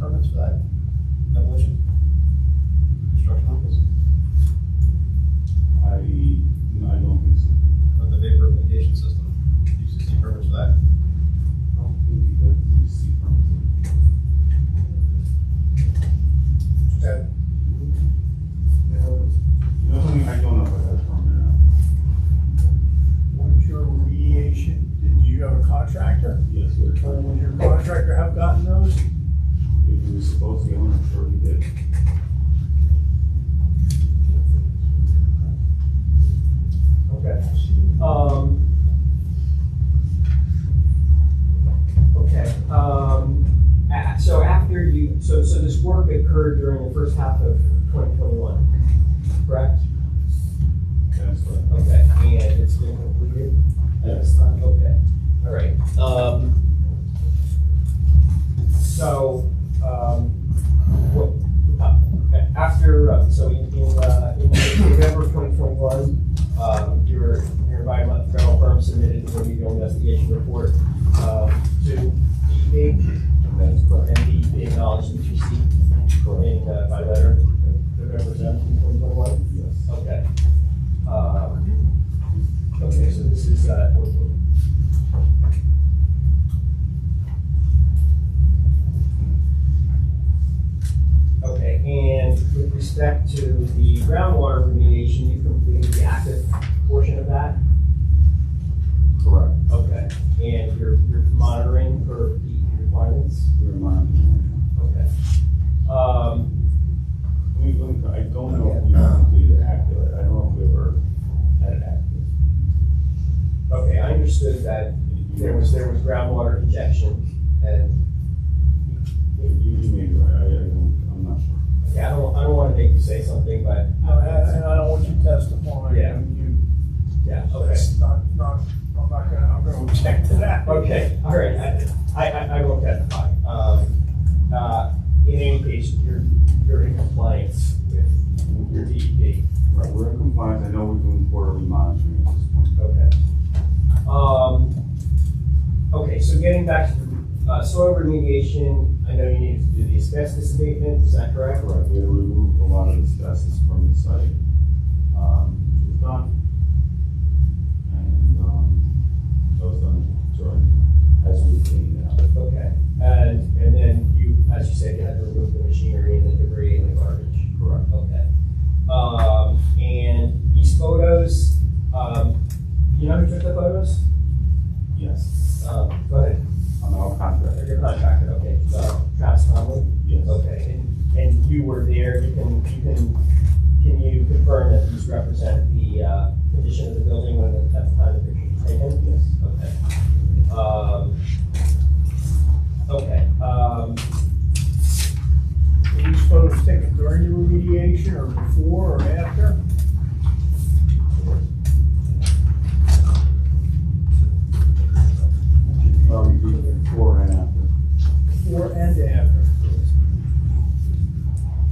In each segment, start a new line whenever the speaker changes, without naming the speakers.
Oh,
for that demolition? Construction office?
I, I don't think so.
With the vapor mitigation system, you should see permits for that.
I don't think we got the C permit.
That. that
The only thing I don't know about that uh, permit,
was your remediation, did you have a contractor?
uh, yes, we're
Or
trying,
would your contractor have gotten those?
if we were supposed to get one, I'm sure we did.
Okay. Um.
Okay, um, a- so after you, so, so this work occurred during the first half of twenty twenty-one, correct?
That's right.
Okay, and it's been completed? at this time. Okay, all right, um. So, um, what, uh, after, uh, so in, in, uh, in November twenty twenty-one, um, your, your environmental firm submitted a remedial investigation report, um, to DEP.
That is correct.
And E the acknowledgement received in, uh, by letter, November seventeenth, twenty twenty-one?
Yes.
Okay. Um, Okay, so this is, uh, Okay, and with respect to the groundwater remediation, you completed the active portion of that?
Correct.
Okay. And you're, you're monitoring for the requirements?
We were monitoring.
Okay. Um,
We, we, I don't know if we completed active, I don't know if we ever had it active.
okay, I understood that there was, there was groundwater injection and,
You, you may be right, I, I don't, I'm not sure.
okay, I don't, I don't wanna make you say something, but,
And I and I don't want you testifying.
Yeah.
You,
yeah, okay.
that's not, not, I'm not gonna, I'm gonna object to that.
Okay, all right, I, I, I- I won't testify. Um, uh, in any case, you're, you're in compliance with your E DEP.
Right, we're in compliance, I know we're doing quarterly monitoring at this point.
Okay. Um, okay, so getting back to, the, uh, soil remediation, I know you needed to do the asbestos abatement, is that correct?
Correct, we removed a lot of asbestos from the site. Um, it was done. And, um, that was done during, as we cleaned out.
Okay, and, and then you, as you said, you had to remove the machinery and the debris and the garbage.
Correct.
Okay. Um, and these photos, um, you know who took the photos?
Yes, Uh,
Um, go ahead,
on our contract,
or your contractor, okay, uh, Travis Conley,
yes.
okay, and, and you were there, you can, you can, can you confirm that these represent the, uh, condition of the building when, the- at the time the picture was taken?
Yes.
Okay. Um, Okay, um,
Were these photos taken during your remediation or before or after?
Well, we did before and after.
Before and after.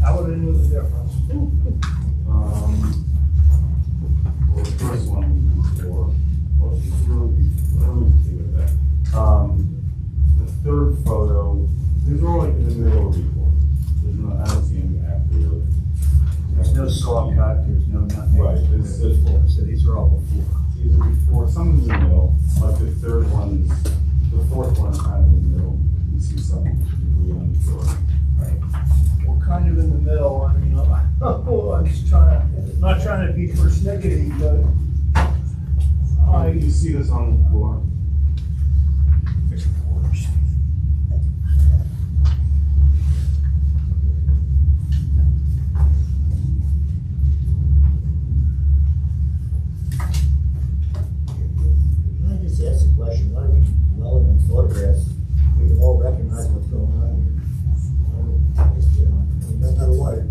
I would have knew the difference.
Um, well, the first one was before, well, it's really, what was the with that? Um, the third photo, these are all like in the middle of the report. There's no, I don't see any after really.
There's no saw cut, there's no nothing.
Right, this is before.
So these are all before.
These are before, some in the middle, like the third one is, the fourth one is kind of in the middle. You see some debris on the floor.
We're kind of in the middle, I mean, I'm, well, I'm just trying, to- not trying to be persnickety, but
Uh,
I,
you see this on the floor?
Can I just ask a question? Why are we dwelling on photographs? We can all recognize what's going on here. Why are we just, you know, we don't have a water.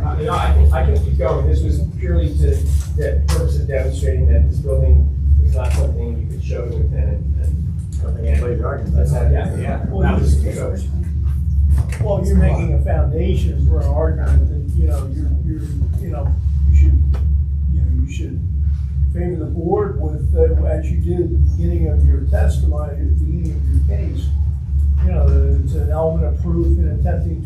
I- you know, I can, I can keep going, this was purely to, the purpose of demonstrating that this building was not something you could show to a tenant, and
I don't think anybody's arguing about
that's,
that.
yeah, yeah.
Well,
that
you-
was the purpose.
well, you're making a foundation for an argument that, you know, you're, you're, you know, you should, you know, you should favor the board with, uh, as you did at the beginning of your testimony, at the beginning of your case. You know, it's an element of proof in attempting